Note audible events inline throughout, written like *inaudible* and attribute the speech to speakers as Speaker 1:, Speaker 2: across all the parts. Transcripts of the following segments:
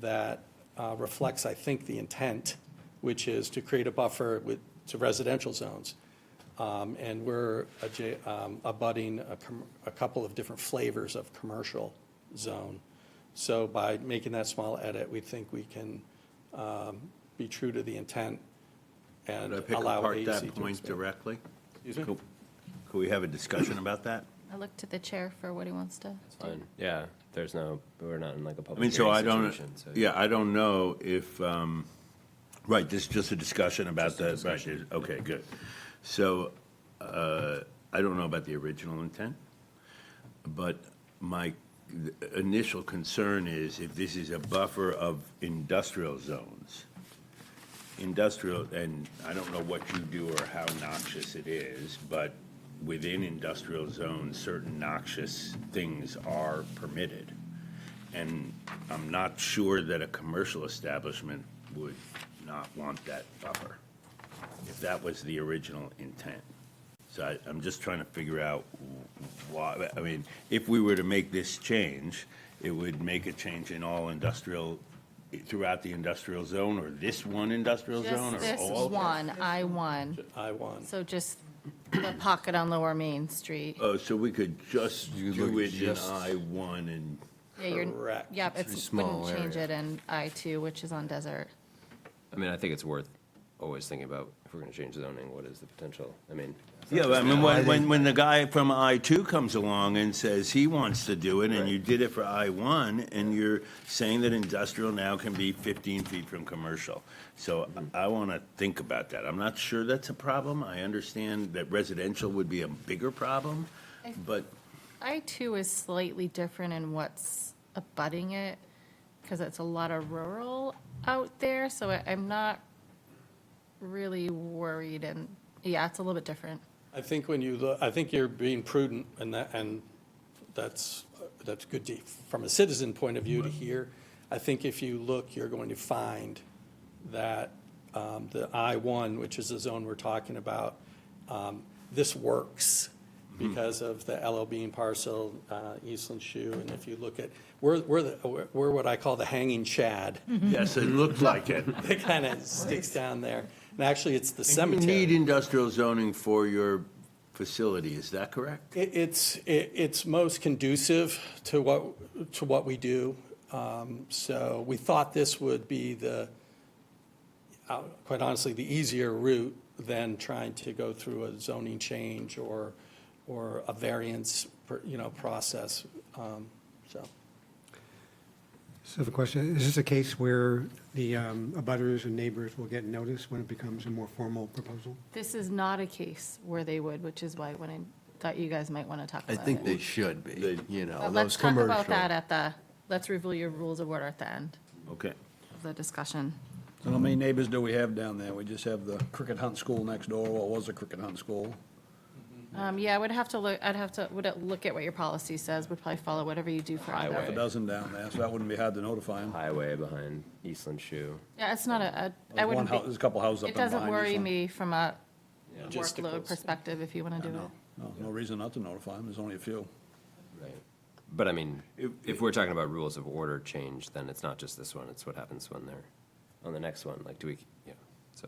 Speaker 1: that uh, reflects, I think, the intent, which is to create a buffer with, to residential zones. Um, And we're adja- um, abutting a com- a couple of different flavors of commercial zone. So by making that small edit, we think we can um, be true to the intent and
Speaker 2: Could I pick
Speaker 1: allow
Speaker 2: apart
Speaker 1: AEC
Speaker 2: that
Speaker 1: to
Speaker 2: point
Speaker 1: expand.
Speaker 2: directly?
Speaker 1: Excuse me?
Speaker 2: Could could we have a discussion about that?
Speaker 3: I look to the chair for what he wants to do.
Speaker 4: Fine. Yeah, there's no, we're not in like a
Speaker 2: I mean,
Speaker 4: public
Speaker 2: so I
Speaker 4: hearing
Speaker 2: don't,
Speaker 4: situation. so-
Speaker 2: yeah, I don't know if, um, right, this is just a discussion about the, right, it- okay, good. So uh, I don't know about the original intent, but my initial concern is if this is a buffer of industrial zones, industrial, and I don't know what you do or how noxious it is, but within industrial zones, certain noxious things are permitted. And I'm not sure that a commercial establishment would not want that buffer, if that was the original intent. So I, I'm just trying to figure out wh- why, I mean, if we were to make this change, it would make a change in all industrial, throughout the industrial zone, or this one industrial zone,
Speaker 3: Just
Speaker 2: or
Speaker 3: this
Speaker 2: all?
Speaker 3: one, I one,
Speaker 1: I one.
Speaker 3: so just the pocket on Lower Main Street.
Speaker 2: Oh, so we could just
Speaker 5: You
Speaker 2: do
Speaker 5: look
Speaker 2: it in
Speaker 5: just-
Speaker 2: I one and,
Speaker 3: Yeah, you're-
Speaker 1: correct.
Speaker 3: Yep,
Speaker 5: It's a
Speaker 3: it's,
Speaker 5: small
Speaker 3: wouldn't change
Speaker 5: area.
Speaker 3: it in I two, which is on desert.
Speaker 4: I mean, I think it's worth always thinking about, if we're gonna change zoning, what is the potential? I mean,
Speaker 2: yeah, but I mean, when, when, when the guy from I two comes along and says he wants to do it, and you did it for I one, and you're saying that industrial now can be fifteen feet from commercial. So I wanna think about that. I'm not sure that's a problem. I understand that residential would be a bigger problem,
Speaker 3: I-
Speaker 2: but,
Speaker 3: I two is slightly different in what's abutting it, because it's a lot of rural out there, so I- I'm not really worried and, yeah, it's a little bit different.
Speaker 1: I think when you, look, I think you're being prudent, and that, and that's, that's good to, from a citizen point of view to hear. I think if you look, you're going to find that um, the I-1, which is the zone we're talking about, um, this works
Speaker 2: Hmm.
Speaker 1: because of the LL Bean parcel, uh, Eastland Shoe, and if you look at, we're, we're, the- we're we're what I call the hanging shad. *laughs*
Speaker 2: yes, it
Speaker 5: *laughs*
Speaker 2: looked like it.
Speaker 1: It kind of sticks down there, and actually, it's the
Speaker 2: You
Speaker 1: cemetery.
Speaker 2: need industrial zoning for your facility, is that correct?
Speaker 1: It, it's, it, it's most conducive to what, to what we do. Um, so we thought this would be the, uh, quite honestly, the easier route than trying to go through a zoning change or, or a variance, per- you know, process. Um, so,
Speaker 6: So the question, is this a case where the um, abutters and neighbors will get notice when it becomes a more formal proposal?
Speaker 3: This is not a case where they would, which is why when I thought you guys might want to talk
Speaker 5: I
Speaker 3: about
Speaker 5: think
Speaker 3: it.
Speaker 5: they should be, you know,
Speaker 3: But
Speaker 5: those
Speaker 3: let's talk
Speaker 5: commercial.
Speaker 3: about that at the, let's review your rules of order at the end
Speaker 2: Okay.
Speaker 3: of the discussion.
Speaker 7: So how many neighbors do we have down there? We just have the cricket hunt school next door, well, it was a cricket hunt school.
Speaker 3: Um, yeah, I would have to look, I'd have to, would it look at what your policy says, would probably follow whatever you do for
Speaker 7: Half a
Speaker 3: either.
Speaker 4: Highway.
Speaker 7: dozen down there, so that wouldn't be hard to notify them.
Speaker 4: highway behind Eastland Shoe.
Speaker 3: Yeah, it's not a, a- I wouldn't
Speaker 7: There's a
Speaker 3: be,
Speaker 7: couple houses up
Speaker 3: it
Speaker 7: in line.
Speaker 3: doesn't worry
Speaker 7: there's no-
Speaker 3: me from a
Speaker 1: Logistical.
Speaker 3: workload perspective if you want to do it.
Speaker 7: No, no reason not to notify them, there's only a few.
Speaker 4: Right. But I mean, if we're talking about rules of order change, then it's not just this one, it's what happens when they're on the next one, like do we, yeah, so.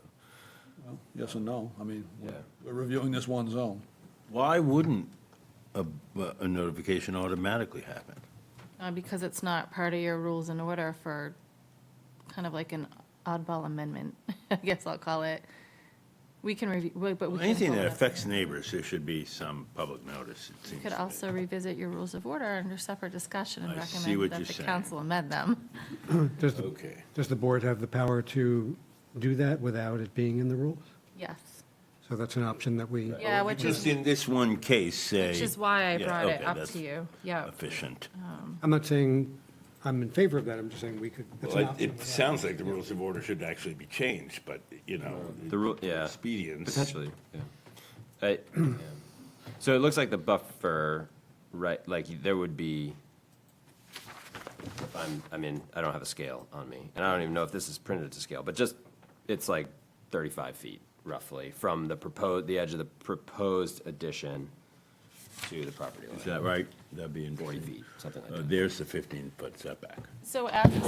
Speaker 7: Yes and no, I mean,
Speaker 4: Yeah.
Speaker 7: we're reviewing this one zone.
Speaker 2: Why wouldn't a, a notification automatically happen?
Speaker 3: Uh, because it's not part of your rules and order for kind of like an oddball amendment, *laughs* I guess I'll call it. We can review, we- but we can.
Speaker 2: Anything
Speaker 3: vote
Speaker 2: that
Speaker 3: on it.
Speaker 2: affects neighbors, there should be some public notice, it seems.
Speaker 3: Could
Speaker 2: to me.
Speaker 3: also revisit your rules of order under separate discussion and
Speaker 2: I see what you're
Speaker 3: recommend that the
Speaker 2: saying.
Speaker 3: council amend them.
Speaker 6: Does, the-
Speaker 2: Okay.
Speaker 6: does the board have the power to do that without it being in the rules?
Speaker 3: Yes.
Speaker 6: So that's an option that we,
Speaker 3: Yeah, which
Speaker 2: Oh, Just
Speaker 3: is,
Speaker 2: in this one case, say.
Speaker 3: which is why I
Speaker 2: Yeah,
Speaker 3: brought it
Speaker 2: okay,
Speaker 3: up
Speaker 2: that's
Speaker 3: to you. Uh-huh. Yeah.
Speaker 2: Efficient.
Speaker 6: I'm not saying I'm in favor of that, I'm just saying we could, that's an
Speaker 2: Well,
Speaker 6: option.
Speaker 2: it sounds like the rules of order should actually be changed, but, you know.
Speaker 4: The rule, yeah.
Speaker 2: Expedience.
Speaker 4: Potentially, yeah. I- yeah. So it looks like the buffer, right, like there would be, I'm, I mean, I don't have a scale on me, and I don't even know if this is printed to scale, but just, it's like thirty-five feet roughly from the proposed, the edge of the proposed addition to the property line.
Speaker 2: Is that right? That'd be Uh, in
Speaker 4: Forty feet, something like that.
Speaker 2: There's the 15-foot setback.
Speaker 3: So after